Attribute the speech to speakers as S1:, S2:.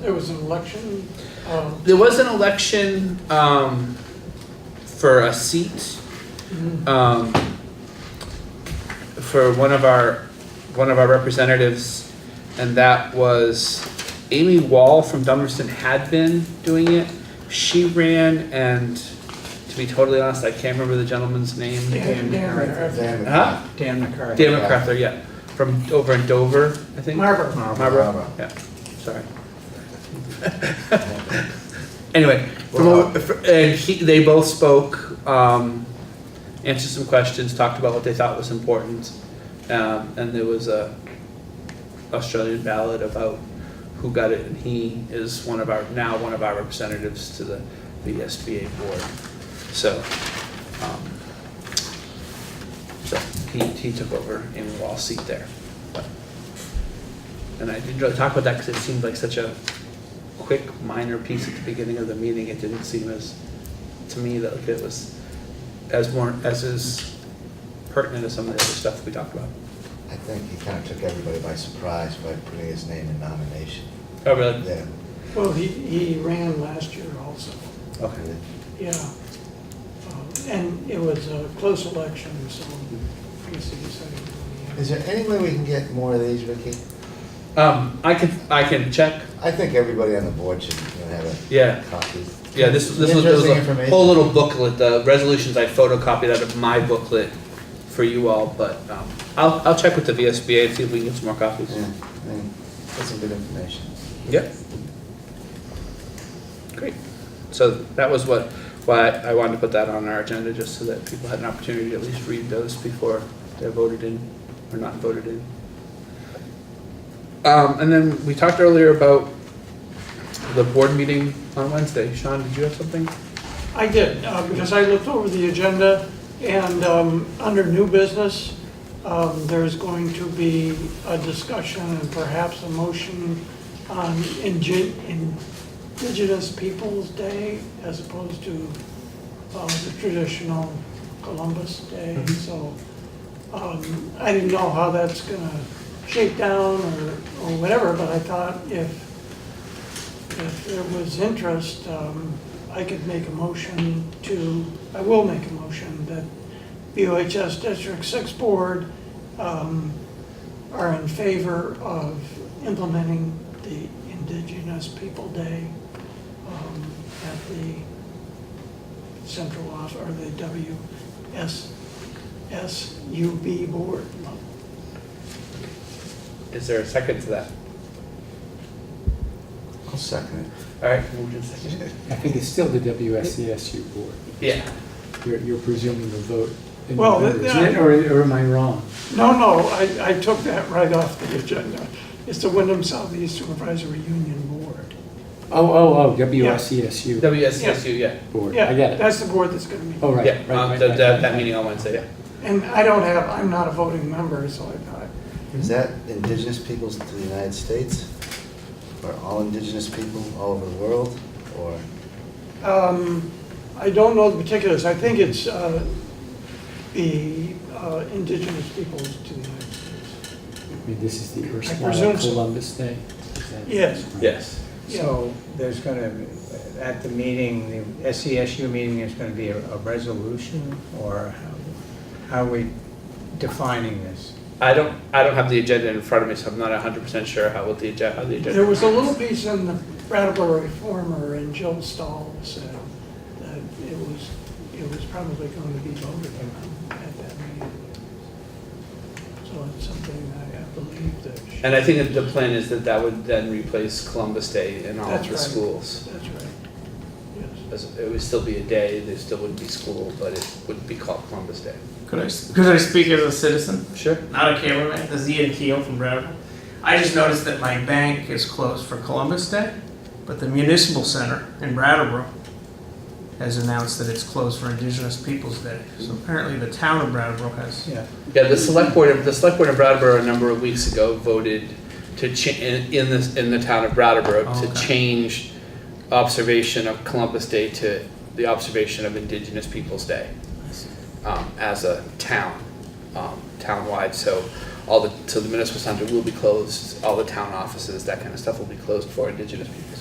S1: There was an election, um,
S2: There was an election um, for a seat um, for one of our one of our representatives, and that was Amy Wall from Dummerston had been doing it. She ran, and to be totally honest, I can't remember the gentleman's name.
S1: Dan- Dan-
S3: Damn it.
S2: Huh?
S4: Dan McCarthy.
S2: David Crafter, yeah, from over in Dover, I think.
S1: Marver.
S2: Marlboro,
S3: Marlboro.
S2: yeah, sorry. Anyway, from, over- fr- and he, they both spoke, um, answered some questions, talked about what they thought was important. Um, and there was a Australian ballot about who got it, and he is one of our, now one of our representatives to the VSBA board. So, um, so he, he took over Amy Wall's seat there. But- And I didn't really talk about that because it seemed like such a quick, minor piece at the beginning of the meeting. It didn't seem as, to me, that it was as more, as is pertinent as some of the other stuff we talked about.
S3: I think he kind of took everybody by surprise by putting his name in nomination.
S2: Oh, really?
S3: Yeah.
S1: Well, he, he ran last year also,
S2: Okay.
S1: yeah. Um, And it was a close election, so I guess he decided.
S3: Is there any way we can get more of these, Ricky?
S2: Um, I can, I can check.
S3: I think everybody on the board should you know, have
S2: Yeah,
S3: a copy.
S2: yeah, this, this was, there was
S3: Interesting
S2: a
S3: information.
S2: whole little booklet, the resolutions, I photocopied out of my booklet for you all, but, um, I'll, I'll check with the VSBA and see if we can get some more copies.
S3: Yeah, I mean, That's some good information.
S2: Yep. Great. So that was what, why I wanted to put that on our agenda, just so that people had an opportunity to at least read those before they're voted in or not voted in. Um, and then we talked earlier about the board meeting on Wednesday. Sean, did you have something?
S1: I did, uh, because I looked over the agenda, and um, under new business, um, there's going to be a discussion and perhaps a motion on Inge- Indigenous Peoples' Day as opposed to um, the traditional Columbus Day, so um, I didn't know how that's gonna shake down or or whatever, but I thought if if there was interest, um, I could make a motion to, I will make a motion that BOHS District Six Board um, are in favor of implementing the Indigenous People Day um, at the central office, or the WSSUB Board.
S2: Is there a second to that?
S3: I'll second it.
S2: All right, moved and seconded.
S4: I think it's still the WSCSU board.
S2: Yeah.
S4: You're, you're presuming the vote. in
S1: Well,
S4: November,
S1: th-
S4: isn't it? Or, or am I wrong?
S1: No, no, I, I took that right off the agenda. It's the Wyndham Southeast Supervisory Union Board.
S4: Oh, oh, oh, WSCSU
S2: WSSU, yeah.
S4: board. I
S1: Yeah,
S4: get it.
S1: that's the board that's gonna meet.
S4: Oh, right.
S2: Yeah,
S4: right,
S2: um,
S4: right,
S2: the-
S4: right,
S2: that,
S4: right,
S2: that
S4: right.
S2: meeting on Wednesday, yeah.
S1: And I don't have, I'm not a voting member, so I thought,
S3: Is that indigenous peoples to the United States? Or all indigenous people all over the world? Or,
S1: um, I don't know the particulars. I think it's, uh, the uh, indigenous peoples to the United States.
S4: I mean, this is the
S1: presume
S4: Erskine
S1: so.
S4: Columbus Day. Is that-
S1: Yes.
S2: Yes.
S1: Yeah.
S5: So there's going to, at the meeting, the SESU meeting, there's going to be a a resolution, or how- how are we defining this?
S2: I don't, I don't have the agenda in front of me, so I'm not hundred percent sure how, what the agenda, how the agenda.
S1: There was a little piece in the Brattleboro Reformer and Jill Stahl said that it was, it was probably going to be voted on at that meeting. So it's something I I believe that. she-
S2: And I think that the plan is that that would then replace Columbus Day in all of
S1: That's
S2: the
S1: right.
S2: schools.
S1: That's right. Yes.
S2: As- It would still be a day, there still wouldn't be school, but it would be called Columbus Day.
S6: Could I, could I speak as a citizen,
S2: Sure.
S6: not a cameraman? This is Ian Keel from Brattleboro. I just noticed that my bank is closed for Columbus Day, but the municipal center in Brattleboro has announced that it's closed for Indigenous Peoples Day. So apparently the town of Brattleboro has.
S5: Yeah,
S2: Yeah, the select board, the select board in Brattleboro a number of weeks ago voted to cha, in, in this, in the town of Brattleboro, to
S6: Okay.
S2: change observation of Columbus Day to the observation of Indigenous Peoples' Day. um, as a town, um, town-wide, so all the, so the municipal center will be closed, all the town offices, that kind of stuff will be closed for indigenous peoples.